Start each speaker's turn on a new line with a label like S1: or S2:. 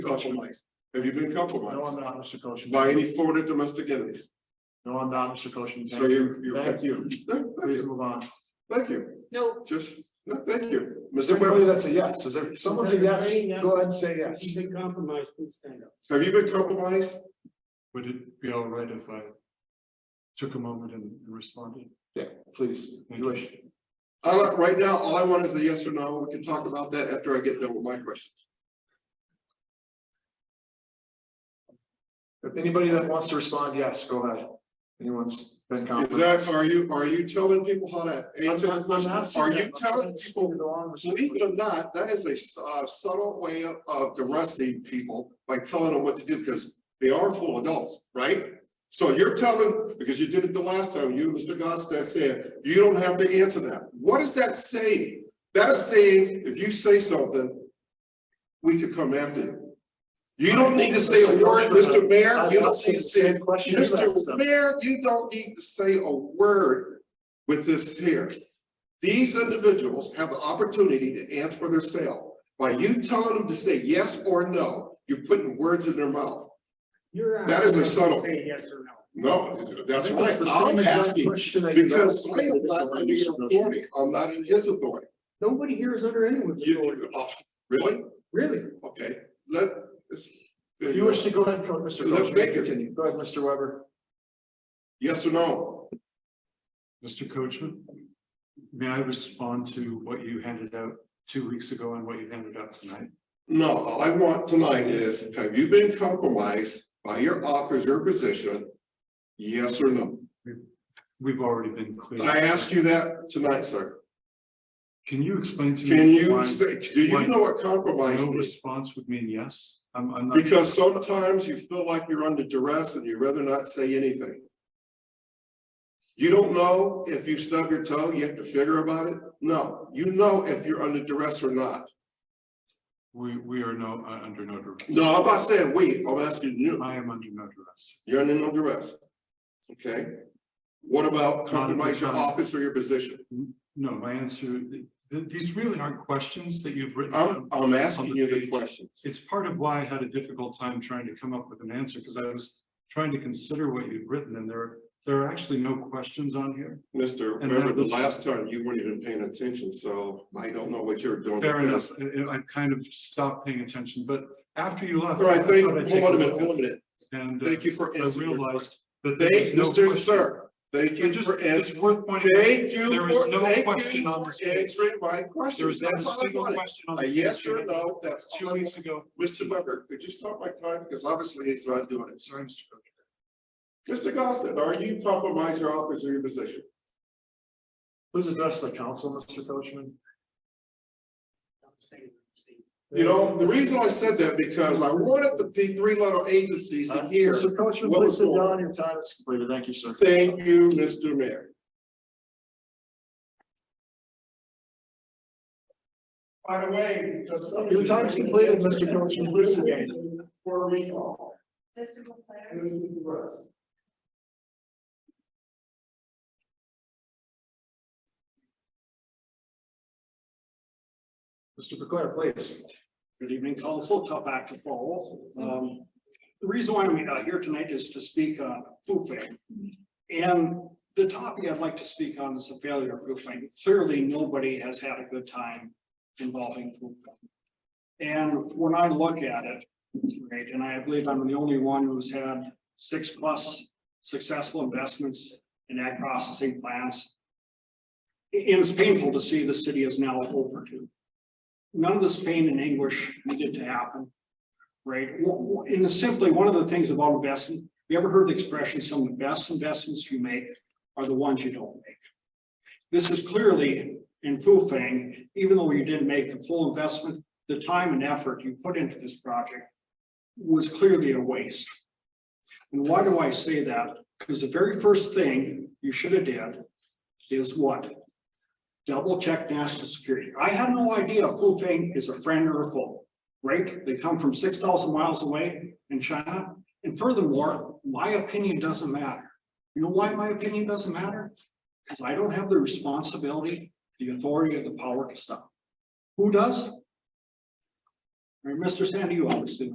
S1: compromised? Have you been
S2: No, I'm
S1: compromised
S2: not, Mr. Koshin.
S1: by any foreign or domestic enemies?
S2: No, I'm not, Mr. Koshin.
S1: So you, you.
S2: Thank you. Please
S1: Thank
S2: move on.
S1: you.
S3: No,
S1: Just, no, thank you. Mr.
S2: Everybody
S1: Webb,
S2: that's a yes, is there, someone's a yes, go ahead and say yes.
S4: He's been compromised, please stand up.
S1: have you been compromised?
S4: Would it be all right if I took a moment and responded?
S2: Yeah, please, you wish.
S1: All, I- right now, all I want is a yes or no. We can talk about that after I get done with my questions.
S2: If anybody that wants to respond, yes, go ahead. Anyone's been
S1: Is that,
S2: compromised.
S1: are you, are you telling people how to answer the
S2: I'm- I'm
S1: question?
S2: asking
S1: Are
S2: that.
S1: you telling people, believe it
S2: people?
S1: or not, that is a s- uh, subtle way of- of arresting people by telling them what to do because they are full adults, right? So you're telling, because you did it the last time, you, Mr. Godstad said, you don't have to answer that. What is that saying? That is saying, if you say something, we could come after you. You don't need to say a word, Mr. Mayor. You don't need to say
S2: Same question. you asked
S1: Mr.
S2: them.
S1: Mayor, you don't need to say a word with this here. These individuals have the opportunity to answer for themselves. By you telling them to say yes or no, you're putting words in their mouth.
S4: You're.
S1: That is a subtle-
S4: Say yes or no.
S1: No, that's
S2: It was
S1: right.
S2: the same
S1: I'm
S2: exact
S1: asking
S2: question that you
S1: because
S2: asked.
S1: I am not under your authority. I'm not in his authority.
S4: Nobody here is under anyone's authority,
S1: You, oh, really?
S4: really.
S1: Okay, let. it's-
S2: If you wish to go ahead, and Mr.
S1: Let-
S2: Koshin,
S1: make it.
S2: continue. Go ahead, Mr. Weber.
S1: Yes or no?
S4: Mr. Coachman, may I respond to what you handed out two weeks ago and what you handed out tonight?
S1: No, all I want tonight is, have you been compromised by your office, your position? Yes or no?
S4: We've already been clear.
S1: I asked you that tonight, sir.
S4: Can you explain to me?
S1: Can you
S4: why
S1: say, do you know what compromise
S4: Mm-hmm. No
S1: is?
S4: response would mean yes? I'm, I'm not.
S1: Because sometimes you feel like you're under duress and you'd rather not say anything. You don't know if you stub your toe, you have to figure about it? No, you know if you're under duress or not.
S4: We, we are no, uh, under no duress.
S1: No, I'm not saying wait, I'm asking you,
S4: I am under no duress.
S1: you're under no duress. Okay? What about compromise your office or your position?
S4: No, my answer, th- th- these really aren't questions that you've written.
S1: I'm,
S4: down.
S1: I'm asking you the questions.
S4: It's part of why I had a difficult time trying to come up with an answer, because I was trying to consider what you've written, and there, there are actually no questions on here.
S1: Mr.
S4: And
S1: Remember
S4: that
S1: the
S4: was-
S1: last time you weren't even paying attention, so I don't know what you're doing.
S4: Fair enough, I- I- I've kind of stopped paying attention, but after you left.
S1: All right,
S4: I
S1: thank,
S4: thought I'd take
S1: hold on a minute,
S4: look,
S1: hold on a minute.
S4: And. uh,
S1: Thank you for
S4: I
S1: answering. your
S4: realized
S1: question.
S4: that there
S1: Thank,
S4: was no
S1: Mr.
S4: question.
S1: Sir, thank
S4: I
S1: you
S4: just,
S1: for
S4: it's
S1: answering.
S4: worth pointing. out,
S1: Thank you
S4: There is
S1: for,
S4: no
S1: thank
S4: question
S1: you
S4: on
S1: for
S4: this.
S1: answering my
S4: There
S1: question.
S4: was not a
S1: That's all I
S4: single
S1: wanted.
S4: question on.
S1: A
S4: this
S1: yes or
S4: issue.
S1: no, that's all
S4: Two
S1: I
S4: weeks
S1: wanted.
S4: ago.
S1: Mr. Weber, could you stop my time? Because obviously he's not doing it.
S4: Sorry, Mr. Coach.
S1: Mr. Gossett, are you compromising your office or your position?
S2: Please address the council, Mr. Coachman.
S1: You know, the reason I said that because I wanted the P three letter agencies to
S2: Uh,
S1: hear.
S2: Mr. Coachman,
S1: what
S2: please
S1: was
S2: sit
S1: going on.
S2: down. Your time is completed. Thank you, sir.
S1: Thank you, Mr. Mayor. By the way, because some.
S2: Your time's completed, Mr. Coachman. Please sit down.
S1: For recall,
S3: Mr. Leclerc.
S1: and this is the rest.
S2: Mr. Leclerc, please.
S5: Good evening, council. Tough act to follow. Um, the reason why we're not here tonight is to speak on foofing. And the topic I'd like to speak on is the failure of foofing. Clearly, nobody has had a good time involving foofing. And when I look at it, right, and I believe I'm the only one who's had six plus successful investments in ag processing plants. And it's painful to see the city is now overdue none of this pain and anguish needed to happen. Right, W- w- and simply, one of the things about investing, you ever heard the expression, some of the best investments you make are the ones you don't make. This is clearly in Fufang, even though you didn't make the full investment, the time and effort you put into this project was clearly a waste. And why do I say that? Because the very first thing you should have did is what? double check national security. I had no idea Fufeng is a friend or a foe, right? They come from six thousand miles away in China. And furthermore, my opinion doesn't matter. You know why my opinion doesn't matter? Because I don't have the responsibility, the authority or the power to stop. Who does? All right, Mr. Sandy, you obviously